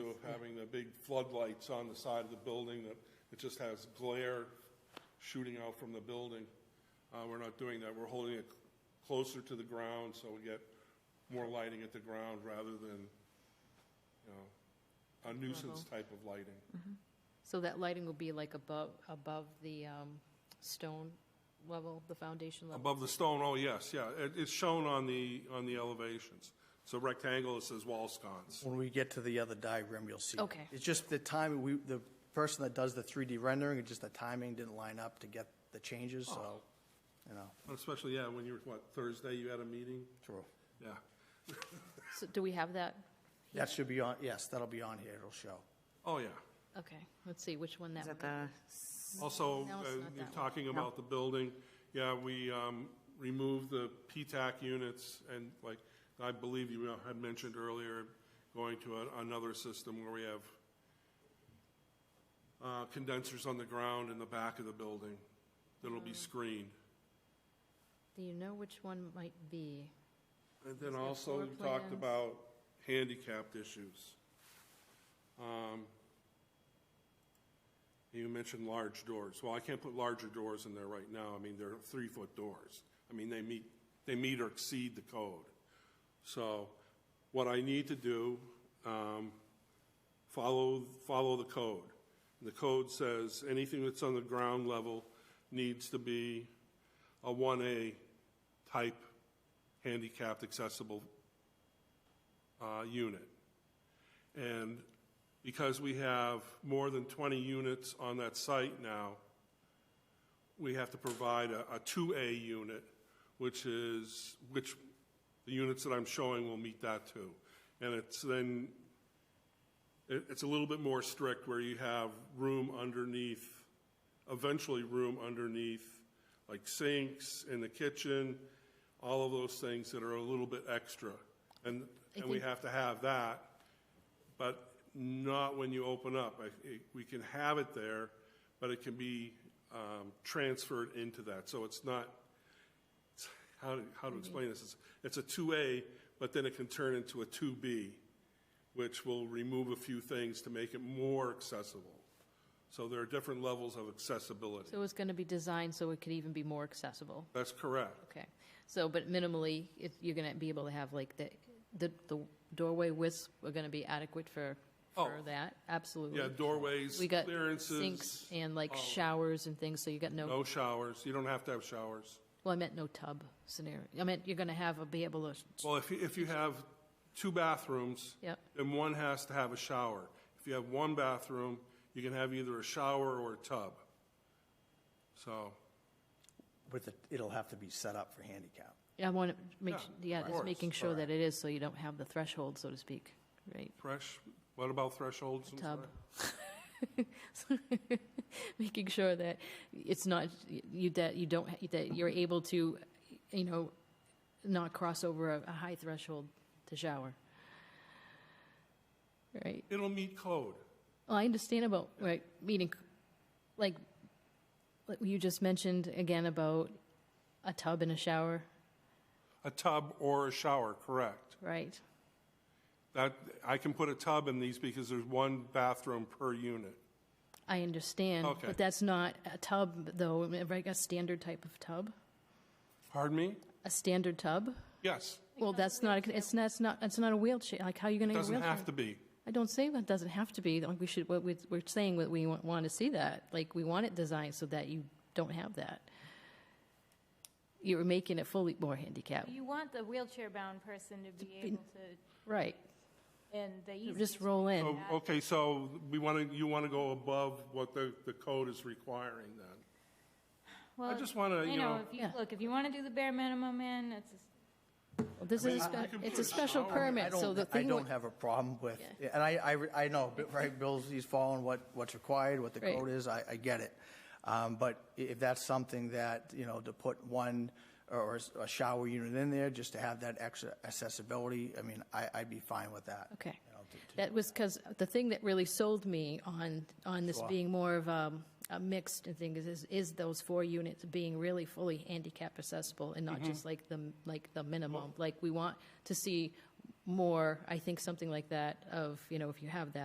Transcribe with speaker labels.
Speaker 1: the big floodlights on the side of the building that, it just has glare shooting out from the building. Uh, we're not doing that. We're holding it closer to the ground so we get more lighting at the ground rather than, you know, a nuisance type of lighting.
Speaker 2: So that lighting will be like above, above the um, stone level, the foundation level?
Speaker 1: Above the stone, oh, yes, yeah. It, it's shown on the, on the elevations. It's a rectangle, it says wall sconce.
Speaker 3: When we get to the other diagram, you'll see. it.
Speaker 2: Okay.
Speaker 3: It's just the time, we, the person that does the 3D rendering, it's just the timing didn't line up to get the changes, so, you know,
Speaker 1: Especially, yeah, when you were, what, Thursday, you had a meeting?
Speaker 3: true.
Speaker 1: Yeah.
Speaker 2: So do we have that?
Speaker 3: That should be on, yes, that'll be on here, it'll show.
Speaker 1: Oh, yeah.
Speaker 2: Okay, let's see which one that
Speaker 4: Is
Speaker 2: would
Speaker 4: that
Speaker 2: be.
Speaker 4: the,
Speaker 1: Also,
Speaker 2: No, it's
Speaker 1: uh,
Speaker 2: not that
Speaker 1: you're
Speaker 2: one.
Speaker 1: talking about the building, yeah, we um, removed the P-TAC units, and like, I believe you had mentioned earlier, going to a- another system where we have uh, condensers on the ground in the back of the building that'll be screened.
Speaker 2: Do you know which one might be?
Speaker 1: And then
Speaker 2: Is there
Speaker 1: also,
Speaker 2: floor
Speaker 1: you talked
Speaker 2: plans?
Speaker 1: about handicapped issues. Um, You mentioned large doors. Well, I can't put larger doors in there right now. I mean, they're three-foot doors. I mean, they meet, they meet or exceed the code. So what I need to do, um, follow, follow the code. The code says anything that's on the ground level needs to be a 1A type handicapped accessible uh, unit. And because we have more than 20 units on that site now, we have to provide a a 2A unit, which is, which the units that I'm showing will meet that too. And it's then, it- it's a little bit more strict where you have room underneath, eventually room underneath, like sinks in the kitchen, all of those things that are a little bit extra. And, and we
Speaker 2: think-
Speaker 1: have to have that, but not when you open up. I- it- We can have it there, but it can be um, transferred into that. So it's not, how to, how to explain this, it's, it's a two A, but then it can turn into a two B, which will remove a few things to make it more accessible. So there are different levels of accessibility.
Speaker 2: So it's going to be designed so it could even be more accessible?
Speaker 1: That's correct.
Speaker 2: Okay, so, but minimally, if you're going to be able to have like the, the the doorway widths are going to be adequate for, for
Speaker 1: Oh.
Speaker 2: that? Absolutely.
Speaker 1: Yeah, doorways,
Speaker 2: We got
Speaker 1: clearances.
Speaker 2: sinks and like showers and things, so you got
Speaker 1: No showers, you don't have to have showers.
Speaker 2: Well, I meant no tub scenario. I meant you're going to have a, be able to,
Speaker 1: Well, if you, if you have two bathrooms.
Speaker 2: Yep.
Speaker 1: Then one has to have a shower. If you have one bathroom, you can have either a shower or a tub. So,
Speaker 3: With it, it'll have to be set up for handicap.
Speaker 2: I want to make,
Speaker 1: Yeah,
Speaker 2: yeah,
Speaker 1: of
Speaker 2: just
Speaker 1: course.
Speaker 2: making sure that it is, so you don't have the threshold, so to speak, right?
Speaker 1: fresh, what about thresholds? I'm
Speaker 2: Tub.
Speaker 1: sorry?
Speaker 2: Making sure that it's not, you, that you don't, that you're able to, you know, not cross over a, a high threshold to shower. Right?
Speaker 1: It'll meet code.
Speaker 2: Well, I understand about, right, meeting, like, like you just mentioned again about a tub and a shower,
Speaker 1: A tub or a shower, correct.
Speaker 2: right?
Speaker 1: That, I can put a tub in these because there's one bathroom per unit.
Speaker 2: I understand,
Speaker 1: Okay.
Speaker 2: but that's not a tub, though, like a standard type of tub,
Speaker 1: Pardon me?
Speaker 2: a standard tub.
Speaker 1: Yes,
Speaker 2: Well, that's not, it's not, it's not, it's not a wheelchair, like, how are you gonna get a
Speaker 1: doesn't
Speaker 2: wheelchair?
Speaker 1: have to be.
Speaker 2: I don't say that doesn't have to be, like, we should, what we, we're saying that we want, want to see that, like, we want it designed so that you don't have that. You're making it fully more handicapped,
Speaker 5: You want the wheelchair-bound person to be able to,
Speaker 2: right,
Speaker 5: and the
Speaker 2: You
Speaker 5: easiest.
Speaker 2: just roll in,
Speaker 1: So, Oh, okay, so we want to, you want to go above what the, the code is requiring then?
Speaker 5: Well,
Speaker 1: just wanna, you know-
Speaker 5: if you-
Speaker 2: Yeah.
Speaker 5: Look, if you want to do the bare minimum, man, it's,
Speaker 2: Well, this is, a
Speaker 1: I- I
Speaker 2: spe-
Speaker 1: can put
Speaker 2: it's a
Speaker 1: a
Speaker 2: special
Speaker 1: shower.
Speaker 3: I
Speaker 2: permit,
Speaker 3: don't-
Speaker 2: so the
Speaker 3: I
Speaker 2: thing.
Speaker 3: don't
Speaker 2: would-
Speaker 3: have a problem with, and I, I, I know, but, right, Bill's, he's following what, what's required, what the
Speaker 2: Right.
Speaker 3: code is, I, I get it. Um, but i- if that's something that, you know, to put one or or a shower unit in there, just to have that extra accessibility, I mean, I, I'd be fine with that.
Speaker 2: Okay.
Speaker 3: You know, to- to-
Speaker 2: That was because the thing that really sold me on, on this being more of um, a mixed thing is- is, is those four units being really fully handicap accessible and not just like the, like the minimum. Like, we want to see more, I think, something like that of, you know, if you have that,